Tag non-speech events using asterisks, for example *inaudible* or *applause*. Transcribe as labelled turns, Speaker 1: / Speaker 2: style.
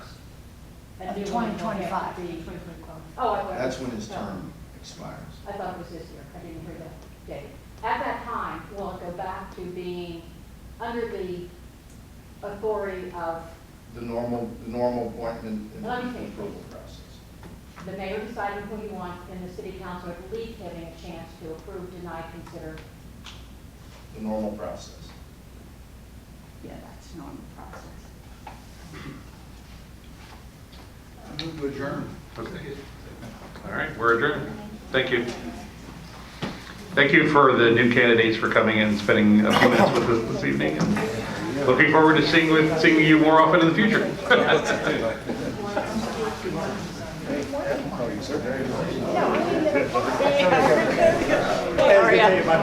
Speaker 1: I do
Speaker 2: Of
Speaker 1: wanna look at
Speaker 2: 2025.
Speaker 1: The 2025.
Speaker 2: Oh, I.
Speaker 3: That's when his term expires.
Speaker 2: I thought it was this year, I didn't hear that date. At that time, will it go back to being under the authority of
Speaker 3: The normal, the normal appointment and
Speaker 2: Let me think.
Speaker 3: approval process.
Speaker 2: the mayor deciding who he wants and the city council at least having a chance to approve, deny, consider?
Speaker 3: The normal process.
Speaker 1: Yeah, that's normal process.
Speaker 3: I move to adjourn.
Speaker 4: Okay. All right, we're adjourned. Thank you. Thank you for the new candidates for coming and spending a few minutes with us this evening. and Looking forward to seeing, with- seeing you more often in the future. *laughs*